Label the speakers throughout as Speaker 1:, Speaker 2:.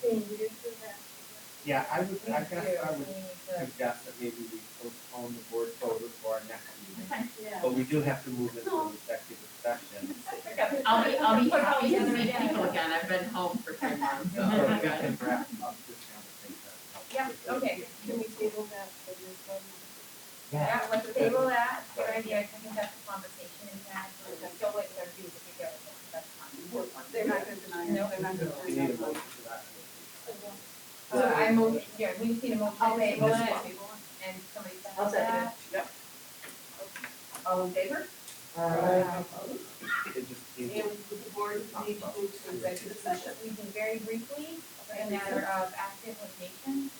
Speaker 1: Can you do that?
Speaker 2: Yeah, I would, I guess I
Speaker 1: We
Speaker 2: would
Speaker 1: need
Speaker 2: suggest that maybe we postpone the board vote for our next meeting.
Speaker 1: to- Yeah.
Speaker 2: But we do have to move into executive session.
Speaker 3: I'll be, I'll be happy to meet
Speaker 1: Yeah.
Speaker 3: people again, I've been home for three months, so.
Speaker 2: So
Speaker 3: I'm
Speaker 2: we
Speaker 3: good.
Speaker 2: can wrap up this conversation.
Speaker 1: Yeah, okay, can we table that for this one?
Speaker 2: Yeah.
Speaker 4: Yeah, let's table that, good idea, I think that's a conversation we had, but I feel like they're due to be given, that's fine.
Speaker 5: They're not gonna deny it, they're not gonna
Speaker 2: We
Speaker 5: deny
Speaker 2: need a
Speaker 5: it.
Speaker 2: motion for that.
Speaker 4: So I move, yeah, we just need a motion
Speaker 5: I'll
Speaker 4: to
Speaker 5: make
Speaker 4: table
Speaker 5: this
Speaker 4: it,
Speaker 5: one.
Speaker 4: and somebody second that.
Speaker 5: I'll second it. Yep.
Speaker 4: All in favor?
Speaker 2: It just
Speaker 5: And
Speaker 2: needs,
Speaker 5: would the board need to go to executive session?
Speaker 4: We can very briefly, a matter of active litigation,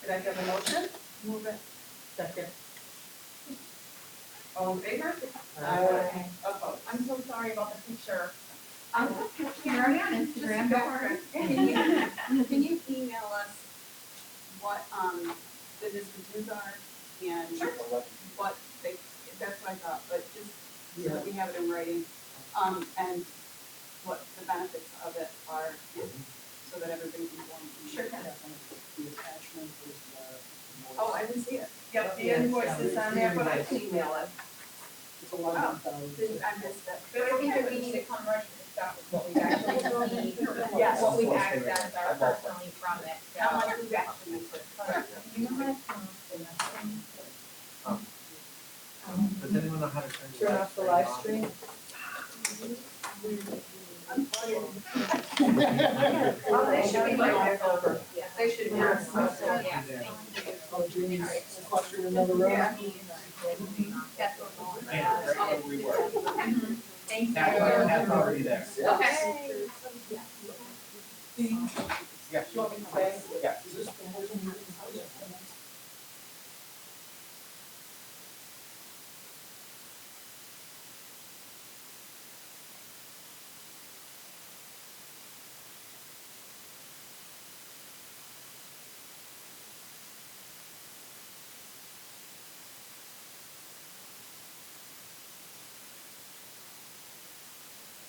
Speaker 5: Could I have a motion? Move it.
Speaker 6: Second.
Speaker 5: All in favor?
Speaker 4: Aye.
Speaker 5: Opposed?
Speaker 4: I'm so sorry about the picture.
Speaker 6: I'm
Speaker 4: already on Instagram, don't worry.
Speaker 5: Can you, can you email us what, um, the discontinues are and what they, that's what I thought, but just so that we have it in writing. Um, and what the benefits of it are, so that everybody's informed.
Speaker 4: Sure.
Speaker 7: The attachment is the.
Speaker 5: Oh, I didn't see it. Yep, the invoice is on there, but I can email it.
Speaker 7: It's eleven thousand.
Speaker 5: Didn't- I missed it.
Speaker 4: But I think that we need to come ready to stop with what we've actually need,
Speaker 5: Yes.
Speaker 4: what we've accessed are personally from it, so.
Speaker 5: How much we actually put.
Speaker 4: You know how to come up with nothing?
Speaker 2: um,
Speaker 4: Um,
Speaker 2: does anyone know how to turn?
Speaker 6: Turn off the live stream?
Speaker 5: Well, they should be like that.
Speaker 4: over. Yeah.
Speaker 5: They should be.
Speaker 4: Yeah, so, yeah,
Speaker 2: And then-
Speaker 4: thank you.
Speaker 7: Oh, geez, cluster another row.
Speaker 4: That's what we
Speaker 2: Yeah, that's where we were.
Speaker 4: Thank you.
Speaker 2: That one, that's already there.
Speaker 4: Okay.
Speaker 2: Yeah, sure.
Speaker 4: Well, we-